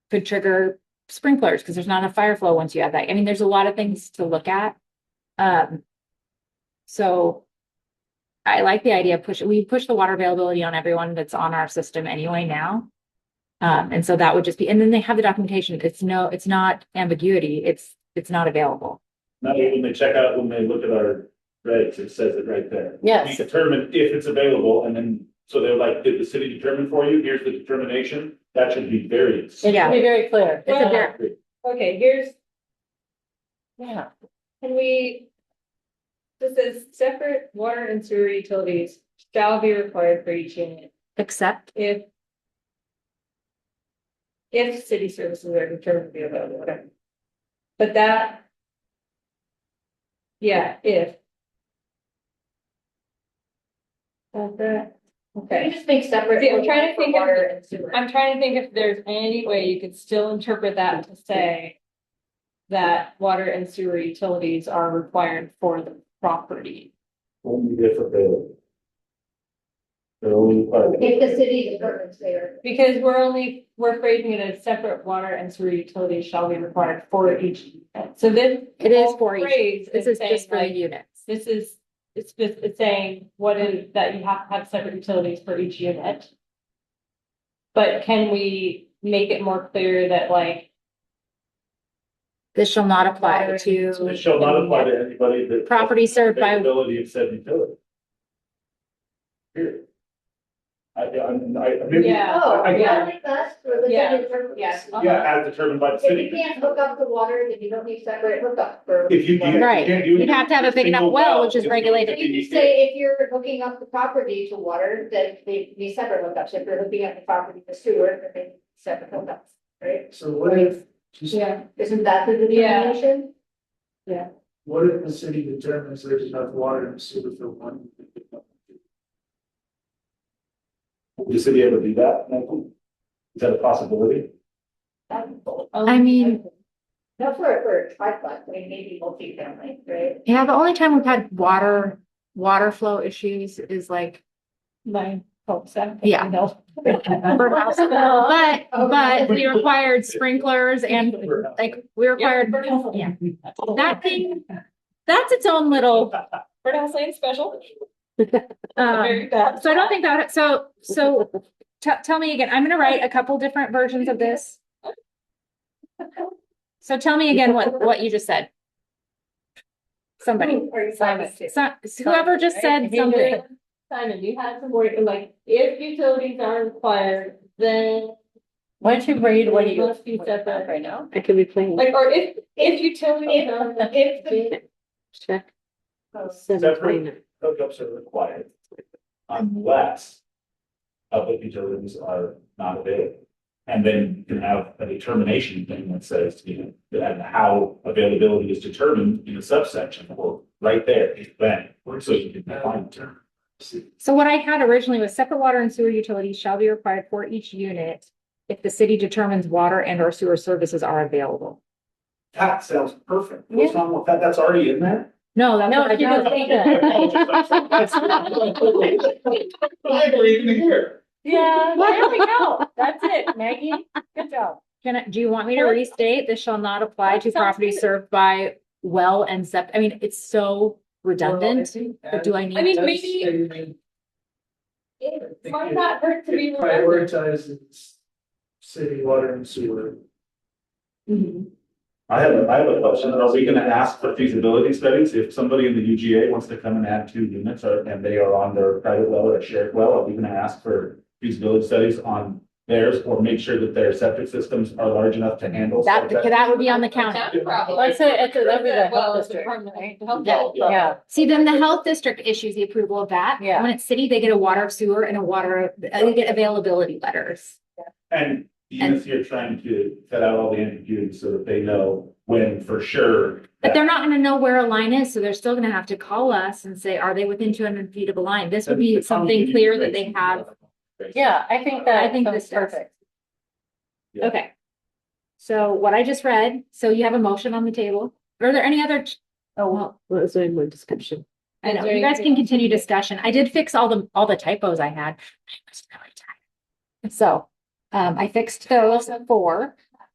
could trigger sprinklers, because there's not enough fire flow once you have that. I mean, there's a lot of things to look at. Um, so I like the idea of push, we push the water availability on everyone that's on our system anyway now. Um, and so that would just be, and then they have the documentation. It's no, it's not ambiguity. It's, it's not available. Not only when they check out, when they look at our regs, it says it right there. We Yes, determine if it's available and then, so they're like, did the city determine for you? Here's the determination. That should be variance. it should be very clear. It's a Well- ver- Okay, here's, Yeah, can we? This is separate water and sewer utilities shall be required for each unit Except, if. If city services are determined to be available, whatever. But that. Yeah, if. Does that, okay. just make separate. Yeah, I'm trying to think of- Water and sewer. I'm trying to think if there's any way you could still interpret that to say. That water and sewer utilities are required for the property. Only if available. They're only required. If the city department's there. Because we're only, we're phrasing it as separate water and sewer utilities shall be required for each. unit. So then. It is for each. Phrase this is saying just for the like, units. this is, it's just, it's saying what is, that you have to have separate utilities for each unit. But can we make it more clear that like This shall not apply Water So It to shall not apply to anybody that. property served by, Availability of said utility. Period. I, I, I, maybe. Yeah. Oh, I- I- yeah, like that's for the Yeah, city department. yeah. Yeah, as determined by the If you city. can't hook up the water, then you don't need separate hookup for. If you. water. Right. You'd have to have a big enough well, which is regulated. You just say if you're hooking up the property to water, then they need separate hookups. If you're hooking up the property to sewer, then they need separate hookups, right? So what if, Yeah. Isn't that the Yeah. determination? what if the city determines there's enough water in the sewer for one? Would the city ever do that, Michael? Is that a possibility? oh, I mean, Not Um, for, for a triplex, I mean, maybe multifamily, right? yeah, the only time we've had water, water flow issues is like My folks. I don't Yeah. know. for house. But, but we required sprinklers and like we required, yeah. that thing, that's its own little, Birdhouse Lane special. um, so I don't think that, so, so tell, tell me again, I'm gonna write a couple different versions of this. So tell me again what, what you just said. Somebody. Are you So, whoever just said something, Simon, you had some word, like, if utilities are required, then why don't you read what they you. Must be separate right now. I could be playing. Like, or if, if utilities are. If the Check. oh, Separate hookups are required unless uh, public utilities are not available. And then you can have a determination thing that says, you know, that and how availability is determined in a subsection or right there, bang, so you can define the term. so what I had originally was separate water and sewer utilities shall be required for each unit. If the city determines water and or sewer services are available. That sounds perfect. What's wrong with that? That's already in there? No, that's No, what I you got. don't think that. Why are we even here? Yeah, there we go. That's it, Maggie. Good job. Can I, do you want me to restate? This shall not apply That to sounds property good. served by well and sept, I mean, it's so redundant, but do I I need? mean, maybe- It might not hurt to be remembered. Prioritizes city water and sewer. I have, I have a question. Are we gonna ask for feasibility studies? If somebody in the UGA wants to come and add two units or, and they are on their private well or a shared well, are we gonna ask for feasibility studies on theirs or make sure that their septic systems are large enough to handle? That, septic? that would be on the county. That's a problem. Let's say it's, that'd be the Well, health it's a district. department, right? The health Yeah, district. yeah, See, then the health district issues the approval of that. Yeah. When it's city, they get a water sewer and a water, uh, they get availability letters. And the units you're trying to cut out all the ambiguity so that they know when for sure. But that- they're not gonna know where a line is, so they're still gonna have to call us and say, are they within two hundred feet of a line? This would be that the county something clear that they needs to have. raise. yeah, I think that. I think sounds this does. perfect. Yeah. Okay. So what I just read, so you have a motion on the table. Are there any other? ch- Oh, well, What was in my description? I know, Is there you guys anything can else? continue discussion. I did fix all the, all the typos I had. I was really tired. So, um, I fixed those four.